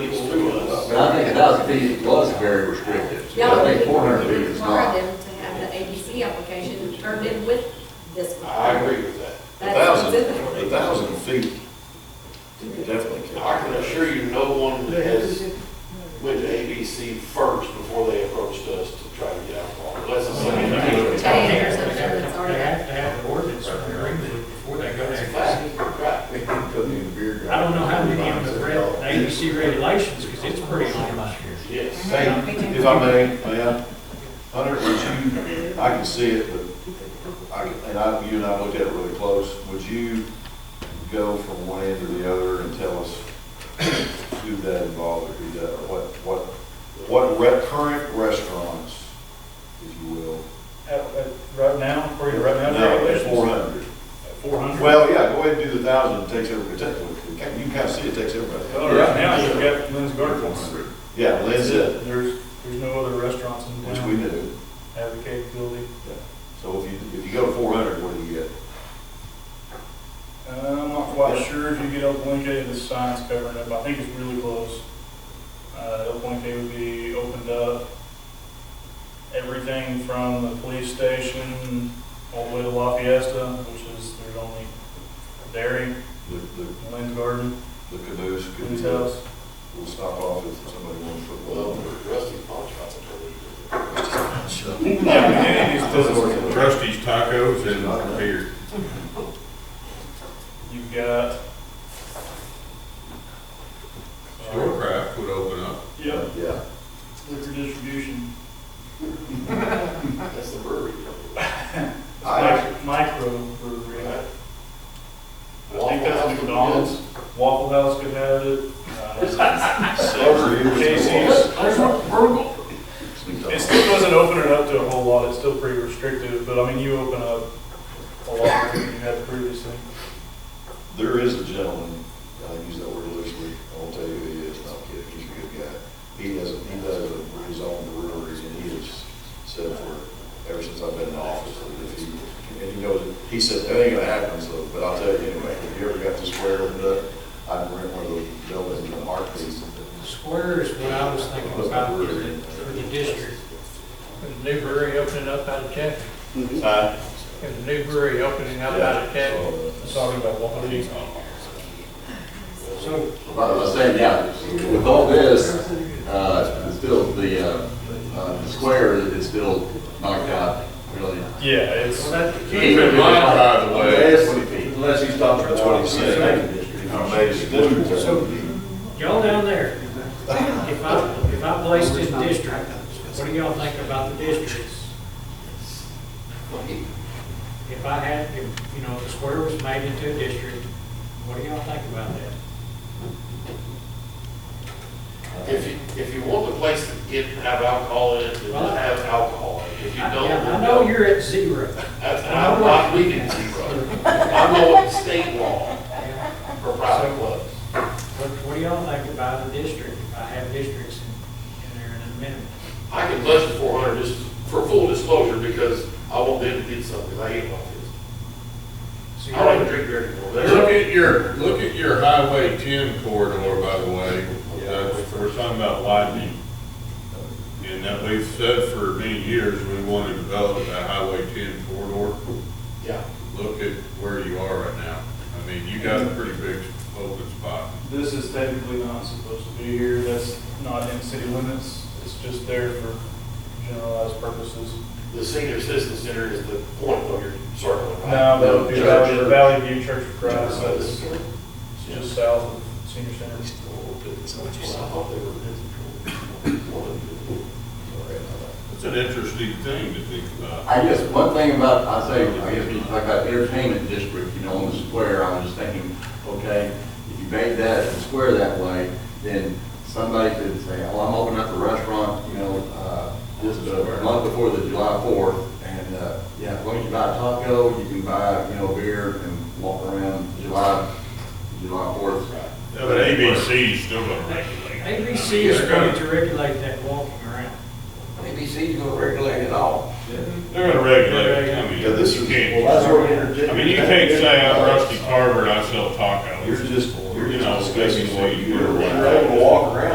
thousand feet was very restrictive. Y'all I would think four hundred feet is require not. them to have the ABC application turned in with this one. I agree with that. A thousand, a thousand feet, definitely. can. I can assure you, no one has went to ABC first before they approached us to try to get alcohol, unless it's like. Ten or something that's They already. have to have an ordinance or an agreement before they go It's a there. fact, right. They can put in beer garden. I don't know how many of them read ABC regulations, because it's pretty long. Yes. Hey, if I may, may I? Hunter, would you, I can see it, but I, and I, you and I looked at it really close. Would you go from one end to the other and tell us who that involved or who that, or what, what, what re- current restaurants, if you will? At- at- Right now, for you right now? No, it's four hundred. Four hundred? Well, yeah, go ahead and do the thousand, it takes everybody, it takes- you can kind of see it takes everybody. Well, right now, you've got Lynn's Gardens. Yeah, Lynn's it, There's, there's no other restaurants in which we town knew. have the capability. So if you, if you go to four hundred, what do you get? Uh, I'm not quite sure if you get Okaloosa, the sign's covering it, but I think it's really close. Uh, Okaloosa would be opened up, everything from the police station all the way to La Fiesta, which is, there's only dairy, The, the, Lynn's Garden, the caboose could be, Lynn's House. we'll stop off if somebody wants Well, football. Rusty Punch, I would Yeah, any of these places. Trustees tacos and beer. You've got. Storecraft would open up. Yep, Yeah. liquor distribution, totally- that's the brewery. I, mic- micro brewery. Right? I think that's McDonald's, Waffle House could have it. uh, Slaughter you. Casey's. It McDonald's. still doesn't open it up to a whole lot, it's still pretty restrictive, but I mean, you open up a lot more than you had previously. There is a gentleman, I use that word loosely, I won't tell you who he is, not kidding, he's a good guy. He has, a- he does a- his own breweries and he has said for, ever since I've been in office, that if he, and he goes, he said, that ain't gonna happen, so, but I'll tell you anyway, if you ever got the square opened up, I'd rent one of those buildings in a heartbeat. The square is what I was thinking about for the, for the district. With the new brewery opening up out of Chaffey, Uh, and the new brewery opening up out of Chaffey. Talking about Waffle House. So, But I was saying, yeah, with all this, uh, it's still the, uh, uh, the square is still knocked out, really. Yeah, it's, well, yeah, that, Keep in mind, by the way, Twenty feet. Unless you stop at twenty-six. So- y'all down there, if I, if I placed in district, what do y'all think about the districts? If I had, if, you know, the square was made into a district, what do y'all think about that? If you, if you want the place to get, have alcohol in, it, then Well, I- have alcohol. If you I don't. yeah, I then know don't. you're at zero. That's, I'm not leaving zero. I'm going with state law Yeah. for private clubs. What, what do y'all think about a district, if I have districts in, in there in a minute? I can budget four hundred just for full disclosure because I want them to get something. I hate office. So I don't even y'all, drink beer anymore. That's- look at your, look at your Highway ten corridor, by the way. That's, we're talking about widening. And that we've said for many years, we want to develop that Highway ten corridor. Yeah. Look at where you are right now. I mean, you got a pretty big open spot. this is technically not supposed to be here, that's not in city limits, it's just there for generalized purposes. The senior citizen center is the point of your circle. right? No, that would be Church. Valley the Valley View Church of Christ, So that's this- just south of Senior Center. Well, I thought they were- It's an interesting thing to think about. I guess one thing about, I say, I guess when you talk about entertainment district, you know, on the square, I was just thinking, okay, if you made that, the square that way, then somebody could say, well, I'm opening up a restaurant, you know, uh, just a month before the July fourth, and, uh, yeah, as long as you buy a taco, you can buy, you know, beer and walk around July, July fourth. Yeah, but ABC is still gonna regulate. ABC is going to regulate that walking around. ABC's gonna regulate it all. They're gonna regulate, it. I mean, Yeah, this you is, can't, well, that's where. I mean, you can't say I'm Rusty Carver and I sell tacos. You're just, you're You know, just discussing what basically, you were. you're- You're able to walk around.